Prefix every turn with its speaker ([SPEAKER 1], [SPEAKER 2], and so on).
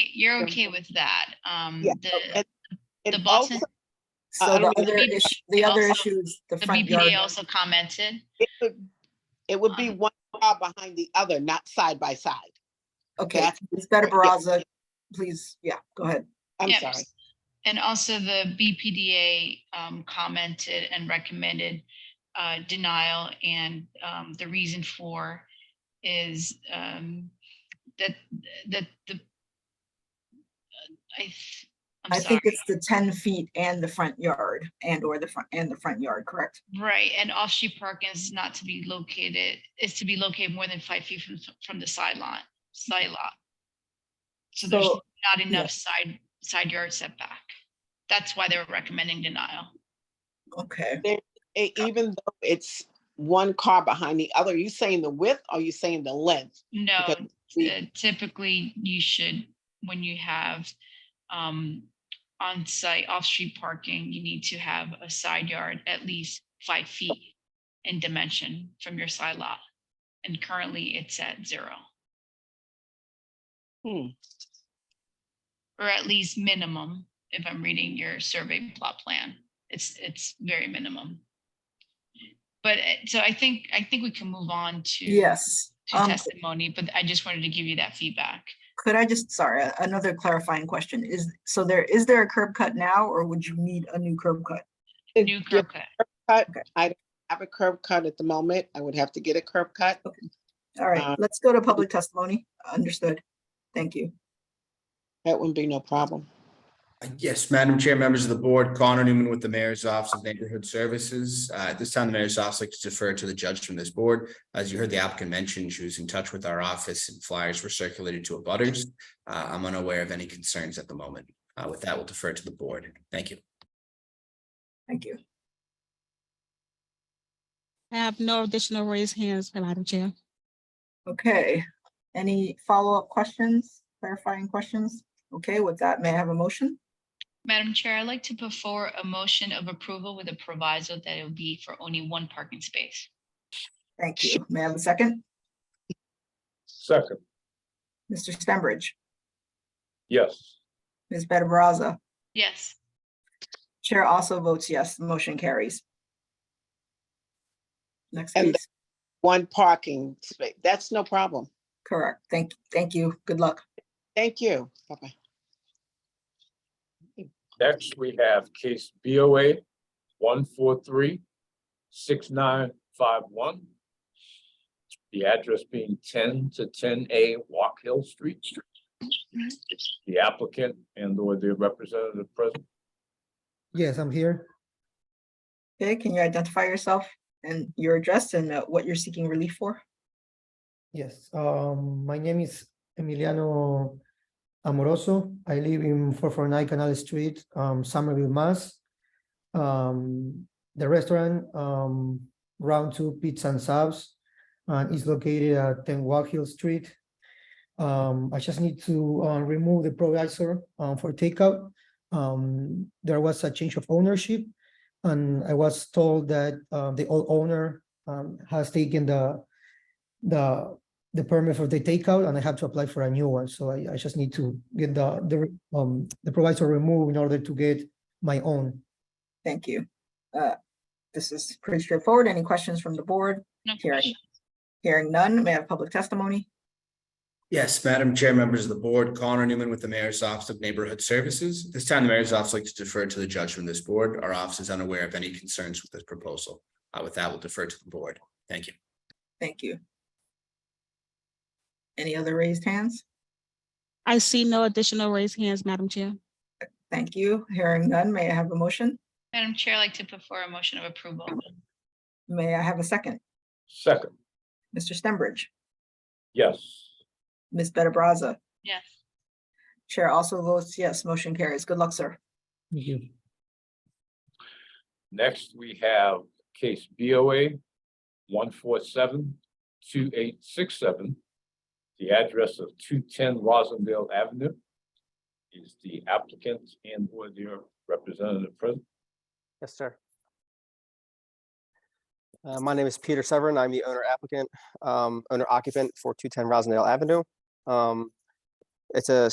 [SPEAKER 1] you're okay with that. Um,
[SPEAKER 2] Yeah,
[SPEAKER 1] the,
[SPEAKER 2] and-
[SPEAKER 1] the
[SPEAKER 2] It
[SPEAKER 1] Boston-
[SPEAKER 2] also- I
[SPEAKER 3] So the
[SPEAKER 2] don't know,
[SPEAKER 3] other
[SPEAKER 1] Uh, the
[SPEAKER 3] issue,
[SPEAKER 1] they
[SPEAKER 3] the other
[SPEAKER 1] also-
[SPEAKER 3] issue is the
[SPEAKER 1] the
[SPEAKER 3] front yard.
[SPEAKER 1] BPDA also commented.
[SPEAKER 2] it would- It would be
[SPEAKER 1] Um,
[SPEAKER 2] one car behind the other, not side by side.
[SPEAKER 3] Okay,
[SPEAKER 2] that's-
[SPEAKER 3] Ms. Better
[SPEAKER 2] yeah.
[SPEAKER 3] Baraza, please, yeah, go ahead.
[SPEAKER 2] I'm
[SPEAKER 1] Yep.
[SPEAKER 2] sorry.
[SPEAKER 1] And also the BPDA um, commented and recommended uh, denial and um, the reason for is um, that, that the I, th-
[SPEAKER 3] I
[SPEAKER 1] I'm sorry,
[SPEAKER 3] think it's the ten feet and the front yard and or the front and the front yard, correct?
[SPEAKER 1] right, and off-street parking is not to be located, is to be located more than five feet from, from the sideline, side lot. So there's
[SPEAKER 3] So,
[SPEAKER 1] not
[SPEAKER 3] yeah.
[SPEAKER 1] enough side, side yard setback. That's why they were recommending denial.
[SPEAKER 3] okay,
[SPEAKER 2] E- Even though it's one car behind the other, are you saying the width or are you saying the length?
[SPEAKER 1] No,
[SPEAKER 2] Because we-
[SPEAKER 1] uh, typically you should, when you have um, on-site, off-street parking, you need to have a side yard at least five feet in dimension from your side lot. And currently it's at zero.
[SPEAKER 2] Hmm.
[SPEAKER 1] Or at least minimum, if I'm reading your survey plot plan, it's, it's very minimum. But, uh, so I think, I think we can move on to
[SPEAKER 3] yes.
[SPEAKER 1] to
[SPEAKER 3] Um,
[SPEAKER 1] testimony, but I just wanted to give you that feedback.
[SPEAKER 3] could I just, sorry, a- another clarifying question is, so there, is there a curb cut now or would you need a new curb cut?
[SPEAKER 2] If
[SPEAKER 1] New
[SPEAKER 2] you
[SPEAKER 1] curb cut.
[SPEAKER 2] Have a curb cut at the moment. I would have to get a curb cut.
[SPEAKER 3] All
[SPEAKER 2] Uh,
[SPEAKER 3] right, let's go to public testimony. Understood. Thank you.
[SPEAKER 2] That wouldn't be no problem.
[SPEAKER 4] Yes, Madam Chair, members of the board, Connor Newman with the Mayor's Office of Neighborhood Services. Uh, At this time, the Mayor's Office likes to defer to the judge from this board. As you heard the applicant mention, she was in touch with our office and flyers were circulated to abutters. Uh, I'm unaware of any concerns at the moment. Uh, With that, we'll defer to the board. Thank you.
[SPEAKER 3] Thank you.
[SPEAKER 5] I have no additional raised hands, Madam Chair.
[SPEAKER 3] Okay, any follow-up questions, clarifying questions? Okay, with that, may I have a motion?
[SPEAKER 1] Madam Chair, I'd like to put forward a motion of approval with a proviso that it will be for only one parking space.
[SPEAKER 3] Thank you. May I have a second?
[SPEAKER 6] Second,
[SPEAKER 3] Mr. Stenbridge,
[SPEAKER 6] yes.
[SPEAKER 3] Ms. Better Baraza,
[SPEAKER 1] Yes,
[SPEAKER 3] Chair also votes yes, the motion carries. Next,
[SPEAKER 2] And-
[SPEAKER 3] please.
[SPEAKER 2] One parking space. That's no problem.
[SPEAKER 3] Correct. Thank, thank you. Good luck.
[SPEAKER 2] Thank you. Bye-bye.
[SPEAKER 6] Next, we have case BOA one four three six nine five one. The address being ten to ten A Walk Hill Street. The applicant and or their representative present.
[SPEAKER 7] Yes, I'm here.
[SPEAKER 3] Okay, can you identify yourself and your address and uh, what you're seeking relief for?
[SPEAKER 7] Yes, um, my name is Emiliano Amoroso. I live in four four nine Canal Street, um, Somerville, Mass. Um, the restaurant, um, Round Two Pizza and Subs, uh, is located at Ten Walk Hill Street. Um, I just need to, uh, remove the provisor, uh, for takeout. Um, there was a change of ownership. And I was told that, uh, the old owner, um, has taken the, the, the permit for the takeout and I have to apply for a new one. So I, I just need to get the, the, re- um, the provisor removed in order to get my own.
[SPEAKER 3] Thank you. Uh, This is pretty straightforward. Any questions from the board?
[SPEAKER 1] no
[SPEAKER 3] Hearing-
[SPEAKER 1] question.
[SPEAKER 3] Hearing none, may I have public testimony?
[SPEAKER 4] Yes, Madam Chair, members of the board, Connor Newman with the Mayor's Office of Neighborhood Services. This time, the Mayor's Office likes to defer to the judge from this board. Our office is unaware of any concerns with this proposal. Uh, With that, we'll defer to the board. Thank you.
[SPEAKER 3] Thank you. Any other raised hands?
[SPEAKER 5] I see no additional raised hands, Madam Chair.
[SPEAKER 3] Thank you. Hearing none, may I have a motion?
[SPEAKER 1] Madam Chair, I'd like to put forward a motion of approval.
[SPEAKER 3] May I have a second?
[SPEAKER 6] Second,
[SPEAKER 3] Mr. Stenbridge,
[SPEAKER 6] yes.
[SPEAKER 3] Ms. Better Brazza,
[SPEAKER 1] Yes,
[SPEAKER 3] Chair also votes yes, motion carries. Good luck, sir.
[SPEAKER 7] Thank you.
[SPEAKER 6] Next, we have case BOA one four seven two eight six seven. The address of two ten Rosendale Avenue is the applicant and or their representative present.
[SPEAKER 8] Yes, sir. Uh, My name is Peter Severin. I'm the owner applicant, um, owner occupant for 210 Rosendale Avenue. Um, It's a